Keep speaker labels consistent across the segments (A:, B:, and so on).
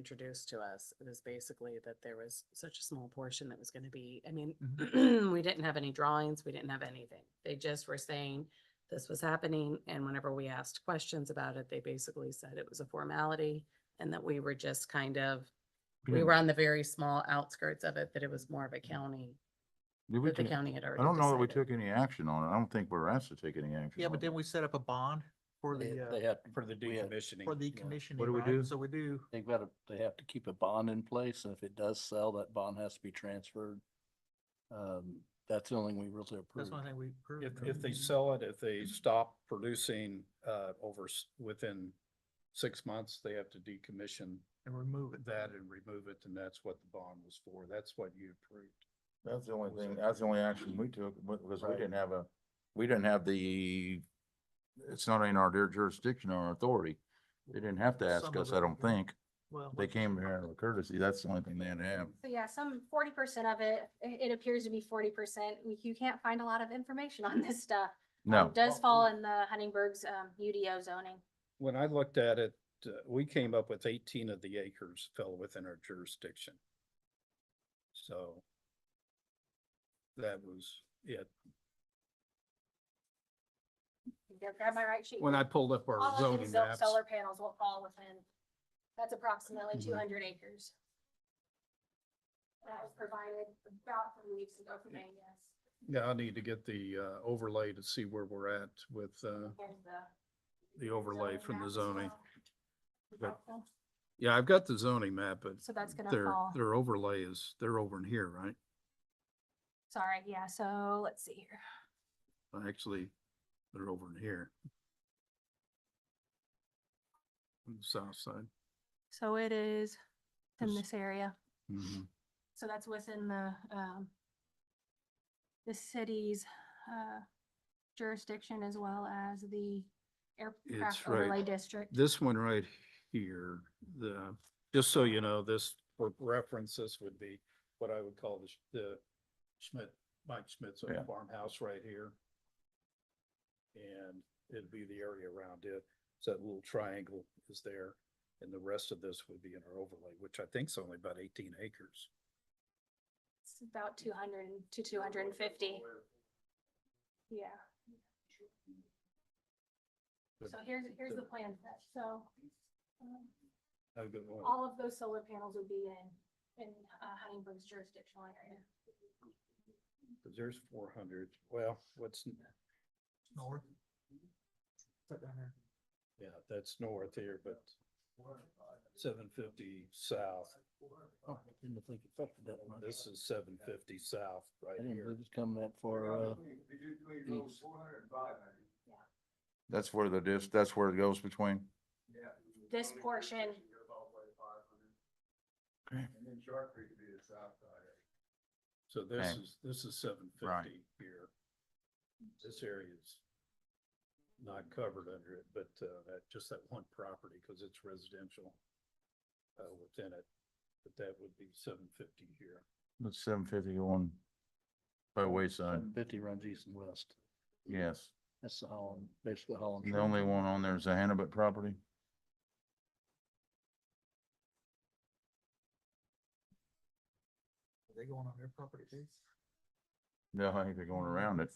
A: introduced to us, it was basically that there was such a small portion that was gonna be, I mean,
B: Mm-hmm.
A: we didn't have any drawings, we didn't have anything. They just were saying this was happening, and whenever we asked questions about it, they basically said it was a formality and that we were just kind of, we were on the very small outskirts of it, that it was more of a county,
B: Did we
A: that the
B: take-
A: county had already
B: I don't know that we
A: decided.
B: took any action on it. I don't think we were asked to take any action.
C: Yeah,
B: on
C: but
B: it.
C: then we set up a bond for
D: They
C: the,
D: they
C: uh,
D: have,
E: For the
D: we had-
E: decommissioning.
C: for the
E: yeah.
C: commissioning.
B: do we
C: right?
B: do?
C: So we do,
D: they've got to, they have to keep a bond in place, and if it does sell, that bond has to be transferred. Um, that's the only one we really
C: that's
D: approve.
C: one thing we approved.
E: If,
C: right?
E: if they sell it, if they stop producing, uh, over, s- within six months, they have to decommission
C: And remove it.
E: that and remove it, and that's what the bond was for. That's what you approved.
B: That's the only
E: Was
B: thing,
E: it-
B: that's the only action we took, wa- was we
E: Right.
B: didn't have a, we didn't have the, it's not in our dear jurisdiction or our authority. They didn't have to ask
C: Some of
B: us, I
C: it,
B: don't
C: yeah.
B: think.
C: Well,
B: They came here out of courtesy. That's the only thing they had to have.
F: So yeah, some forty percent of it, it, it appears to be forty percent. You can't find a lot of information on this stuff. Um,
B: No,
F: Does fall in the Huntingburg's, um, UDO zoning.
E: When I looked at it, uh, we came up with eighteen of the acres fell within our jurisdiction. So that was it.
F: Yeah, Grab my right sheet.
E: When I pulled up our
F: All of
E: zoning
F: these
E: maps.
F: Solar panels will fall within, that's approximately
E: Mhm.
F: two hundred acres. That was provided about three weeks ago from E AES.
E: Yeah, I need to get the uh, overlay to see where we're at with uh,
F: Here's the
E: the overlay
F: zoning
E: from
F: map
E: the
F: as
E: zoning.
F: well.
E: But- Yeah, I've got the zoning map, but
F: So that's gonna
E: their,
F: fall.
E: their overlay is, they're over in here, right?
F: Sorry, yeah, so let's see here.
E: Well, Actually, they're over in here. On the south side.
F: So it is in
E: This-
F: this area.
E: Mhm.
F: So that's within the, um, the city's, uh, jurisdiction as well as the
E: It's
F: aircraft
E: right.
F: overlay district.
E: This one right here, the, just so you know, this, for reference, this would be what I would call the Sch- the Schmidt, Mike Schmidt's
B: Yeah.
E: old farmhouse right here. And it'd be the area around it. So that little triangle is there. And the rest of this would be in our overlay, which I think is only about eighteen acres.
F: It's about two hundred to two hundred and fifty. Yeah.
E: Good.
F: So here's, here's the
E: Good.
F: plan for that. So, um,
E: Have a good one.
F: all of those solar panels would be in, in uh, Huntingburg's jurisdictional area.
E: 'Cause There's four hundred. Well, what's, n-
C: north. Put down there.
E: yeah, that's north here, but seven fifty south.
D: Oh, I Didn't think it affected that much.
E: This is seven fifty south
D: I
E: right
D: didn't
E: here.
D: believe it's coming that far, uh, east.
B: that's where the dis, that's where it goes between.
F: This portion,
E: So this
B: Okay.
E: is, this is seven
B: Right.
E: fifty here. This area is not covered under it, but uh, that, just that one property, because it's residential uh, within it. But that would be seven fifty here.
B: That's seven fifty one by wayside.
D: fifty runs east and west.
B: Yes.
D: That's the Holland, basically Holland.
B: The only one on there is the Hannibal property.
C: Are They going on their property too?
B: No, I think they're going around it.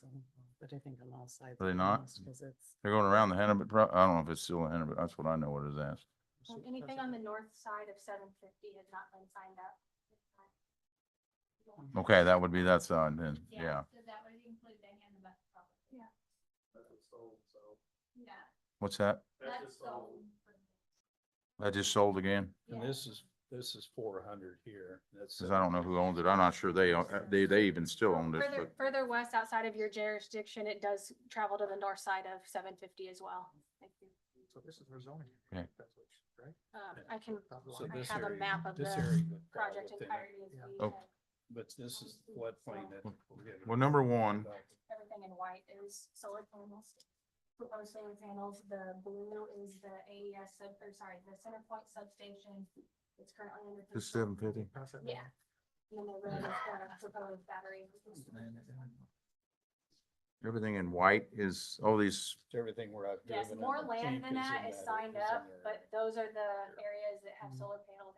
A: But I think on all sides.
B: Are they not?
A: Because it's.
B: They're going around the Hannibal pro, I don't know if it's still a Hannibal. That's what I know it is as.
F: um, anything on the north side of seven fifty has not been signed up.
B: Okay, that would be that side then, yeah.
F: So that would include the Hannibal property. Yeah. Yeah.
B: What's that?
F: That's sold.
B: That just sold again?
E: And
F: Yeah.
E: this is, this is four hundred here. That's.
B: Cause I don't know who owns it. I'm not sure they, own- uh, they, they even still owned it,
F: Further,
B: but
F: further west outside of your jurisdiction, it does travel to the north side of seven fifty as well. Thank you.
C: So this is their zoning.
B: Okay.
C: That's what- Right?
F: Um, I can,
C: Top
E: So
C: line.
F: I
E: this
F: have a
E: area-
F: map of
E: this
F: the
E: area would fall
F: project
E: within it,
F: entirety is
C: Yeah.
F: we
B: Oh.
F: have
E: But this is the floodplain that.
B: Well, number one-
F: everything in white is solar panels. Proposed solar panels, the blue is the AES sub, or sorry, the center point substation. It's currently under.
B: it's seven
F: construction.
B: fifty.
C: Pass that
F: Yeah.
C: down.
F: And then the red is the proposed battery.
B: Everything in white is, all these,
E: It's everything we're out.
F: Yes, more land than that is signed up, but those are the areas that have
C: Mhm.
F: solar panels